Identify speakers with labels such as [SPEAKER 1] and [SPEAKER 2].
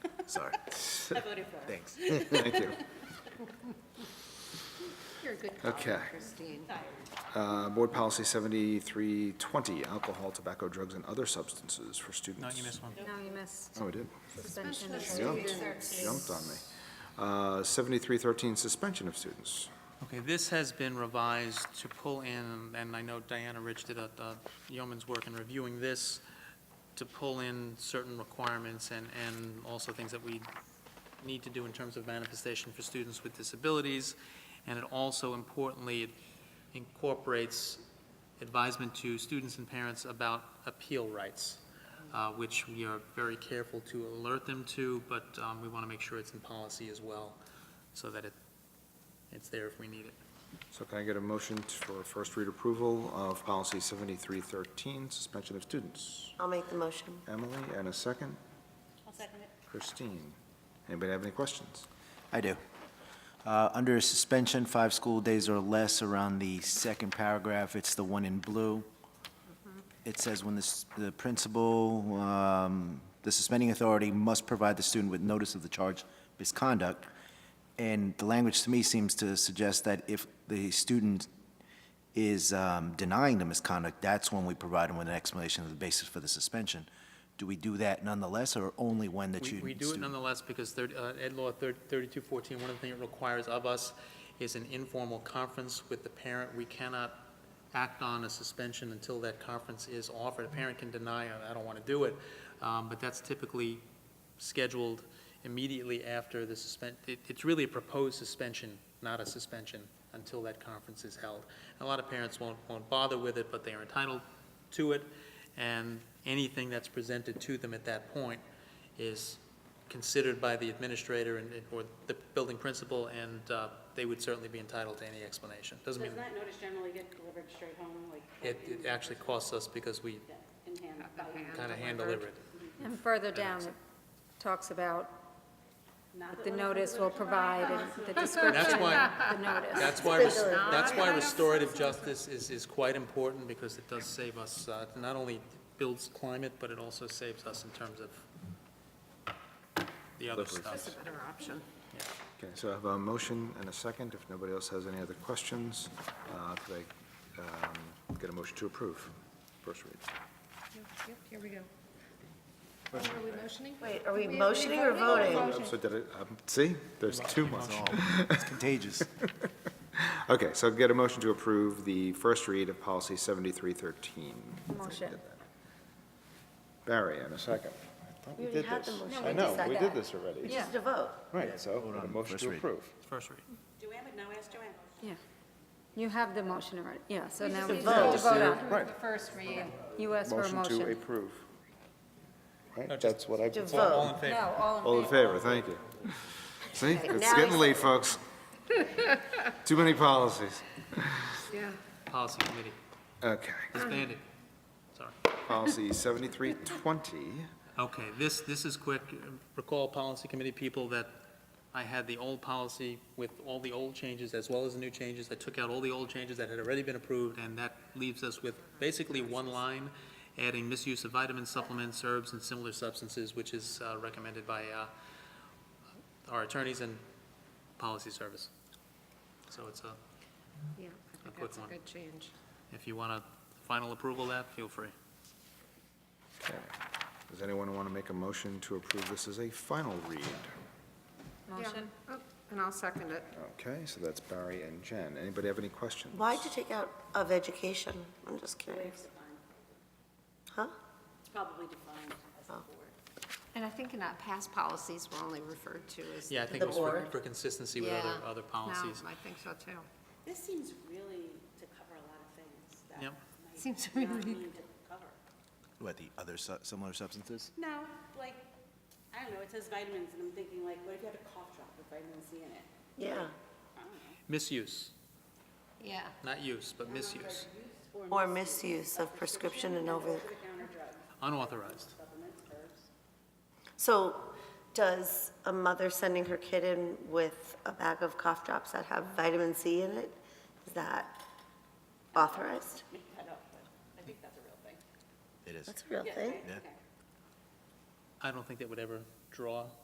[SPEAKER 1] Sorry.
[SPEAKER 2] I voted for it.
[SPEAKER 1] Thanks. Thank you.
[SPEAKER 3] You're a good cop,
[SPEAKER 1] Okay.
[SPEAKER 3] Christine.
[SPEAKER 2] Tired.
[SPEAKER 1] Uh, Board Policy 7320, alcohol, tobacco, drugs, and other substances for students.
[SPEAKER 4] No, you missed one.
[SPEAKER 3] No, you missed.
[SPEAKER 1] Oh, I did.
[SPEAKER 3] Suspension of
[SPEAKER 1] Jumped,
[SPEAKER 3] students.
[SPEAKER 1] jumped on me. Uh, 7313, suspension of students.
[SPEAKER 4] Okay, this has been revised to pull in, and I know Diana Rich did a a yeoman's work in reviewing this, to pull in certain requirements and, and also things that we need to do in terms of manifestation for students with disabilities. And it also importantly incorporates advisement to students and parents about appeal rights, uh, which we are very careful to alert them to, but um, we want to make sure it's in policy as well, so that it, it's there if we need it.
[SPEAKER 1] So can I get a motion for first read approval of Policy 7313, suspension of students?
[SPEAKER 5] I'll make the motion.
[SPEAKER 1] Emily, and a second?
[SPEAKER 2] I'll second it.
[SPEAKER 1] Christine. Anybody have any questions?
[SPEAKER 6] I do. Uh, Under suspension, five school days or less, around the second paragraph, it's the one in blue. It says when the s- the principal, um, the suspending authority must provide the student with notice of the charge of misconduct. And the language to me seems to suggest that if the student is um, denying the misconduct, that's when we provide them with an explanation of the basis for the suspension. Do we do that nonetheless, or only when the
[SPEAKER 4] We-
[SPEAKER 6] student?
[SPEAKER 4] We do it nonetheless because thirty- uh, Ed Law thir- 3214, one of the things it requires of us is an informal conference with the parent. We cannot act on a suspension until that conference is offered. A parent can deny, I don't want to do it, um, but that's typically scheduled immediately after the suspend, it- it's really a proposed suspension, not a suspension, until that conference is held. A lot of parents won't, won't bother with it, but they are entitled to it, and anything that's presented to them at that point is considered by the administrator and, and- or the building principal, and uh, they would certainly be entitled to any explanation. Doesn't mean,
[SPEAKER 2] Does that notice generally get delivered straight home, like?
[SPEAKER 4] it, it actually costs us because we
[SPEAKER 2] Yeah, In hand, by hand.
[SPEAKER 4] kind of hand deliver it.
[SPEAKER 3] And further down, it talks about
[SPEAKER 2] Not
[SPEAKER 3] the
[SPEAKER 2] that one-
[SPEAKER 3] notice will provide and the description
[SPEAKER 4] That's why-
[SPEAKER 3] of the notice.
[SPEAKER 4] That's why, res- that's why restorative justice is, is quite important, because it does save us, uh, not only builds climate, but it also saves us in terms of the other
[SPEAKER 1] Slippery.
[SPEAKER 4] stuff.
[SPEAKER 5] Better option.
[SPEAKER 1] Okay, so I have a motion and a second. If nobody else has any other questions, uh, could I um, get a motion to approve? First read.
[SPEAKER 7] Yep, here we go. Are we motioning?
[SPEAKER 5] Wait, are we motioning or voting?
[SPEAKER 1] So did it, um, see, there's too much.
[SPEAKER 6] It's contagious.
[SPEAKER 1] Okay, so get a motion to approve the first read of policy 7313.
[SPEAKER 3] Motion.
[SPEAKER 1] Barry, and a second.
[SPEAKER 5] We already had the motion.
[SPEAKER 1] I know, we did this already.
[SPEAKER 5] It's just a vote.
[SPEAKER 1] Right, so
[SPEAKER 6] Hold
[SPEAKER 1] a
[SPEAKER 6] on,
[SPEAKER 1] motion
[SPEAKER 6] first
[SPEAKER 1] to
[SPEAKER 6] read.
[SPEAKER 1] approve.
[SPEAKER 4] First read.
[SPEAKER 2] Joanne, no, ask Joanne.
[SPEAKER 3] Yeah. You have the motion already, yeah, so now we
[SPEAKER 5] need
[SPEAKER 3] just
[SPEAKER 5] to
[SPEAKER 3] have to
[SPEAKER 5] vote.
[SPEAKER 3] vote on
[SPEAKER 1] Right.
[SPEAKER 7] The first read.
[SPEAKER 3] it. You asked for a
[SPEAKER 1] Motion to
[SPEAKER 3] motion.
[SPEAKER 1] approve. Right, that's what I.
[SPEAKER 5] To
[SPEAKER 4] All- All
[SPEAKER 5] vote.
[SPEAKER 4] in favor?
[SPEAKER 3] No, all in favor.
[SPEAKER 1] All in favor, thank you. See, it's
[SPEAKER 5] now
[SPEAKER 1] getting
[SPEAKER 5] I-
[SPEAKER 1] late, folks. Too many policies.
[SPEAKER 7] Yeah.
[SPEAKER 4] Policy committee,
[SPEAKER 1] Okay,
[SPEAKER 4] disbanded. Sorry.
[SPEAKER 1] policy 7320.
[SPEAKER 4] Okay, this, this is quick. Recall, policy committee people, that I had the old policy with all the old changes as well as the new changes. I took out all the old changes that had already been approved, and that leaves us with basically one line, adding misuse of vitamins, supplements, herbs, and similar substances, which is uh, recommended by uh, our attorneys and policy service. So it's a, A
[SPEAKER 7] Yeah, I think
[SPEAKER 4] quick
[SPEAKER 7] that's a
[SPEAKER 4] one.
[SPEAKER 7] good change.
[SPEAKER 4] if you want a final approval of that, feel free.
[SPEAKER 1] Okay. Does anyone want to make a motion to approve this as a final read?
[SPEAKER 3] Motion.
[SPEAKER 7] Yeah. Oh, And I'll second it.
[SPEAKER 1] Okay, so that's Barry and Jen. Anybody have any questions?
[SPEAKER 5] Why'd you take out of education? I'm just curious. Huh?
[SPEAKER 2] It's probably defined as a board.
[SPEAKER 7] And I think in our past policies, we're only referred to as.
[SPEAKER 4] Yeah, I think it was
[SPEAKER 5] The
[SPEAKER 4] for
[SPEAKER 5] board.
[SPEAKER 4] for consistency with other,
[SPEAKER 7] Yeah.
[SPEAKER 4] other
[SPEAKER 7] No,
[SPEAKER 4] policies.
[SPEAKER 7] I think so too.
[SPEAKER 2] This seems really to cover a lot of things that
[SPEAKER 4] Yep.
[SPEAKER 2] might
[SPEAKER 7] Seems
[SPEAKER 2] not
[SPEAKER 7] really-
[SPEAKER 2] need to cover.
[SPEAKER 6] What, the other su- similar substances?
[SPEAKER 2] No, like, I don't know, it says vitamins, and I'm thinking like, what if you have a cough drop with vitamin C in it?
[SPEAKER 5] Yeah.
[SPEAKER 2] I don't know.
[SPEAKER 4] Misuse.
[SPEAKER 7] Yeah.
[SPEAKER 4] Not use, but misuse,
[SPEAKER 5] Or misuse of prescription and over.
[SPEAKER 2] Counter drugs,
[SPEAKER 4] unauthorized.
[SPEAKER 2] supplements, herbs.
[SPEAKER 5] So does a mother sending her kid in with a bag of cough drops that have vitamin C in it, is that authorized?
[SPEAKER 2] Make that up, but I think that's a real thing.
[SPEAKER 6] It is.
[SPEAKER 5] That's a real thing.
[SPEAKER 2] Okay,
[SPEAKER 6] Yeah.
[SPEAKER 2] okay.
[SPEAKER 4] I don't think that would ever draw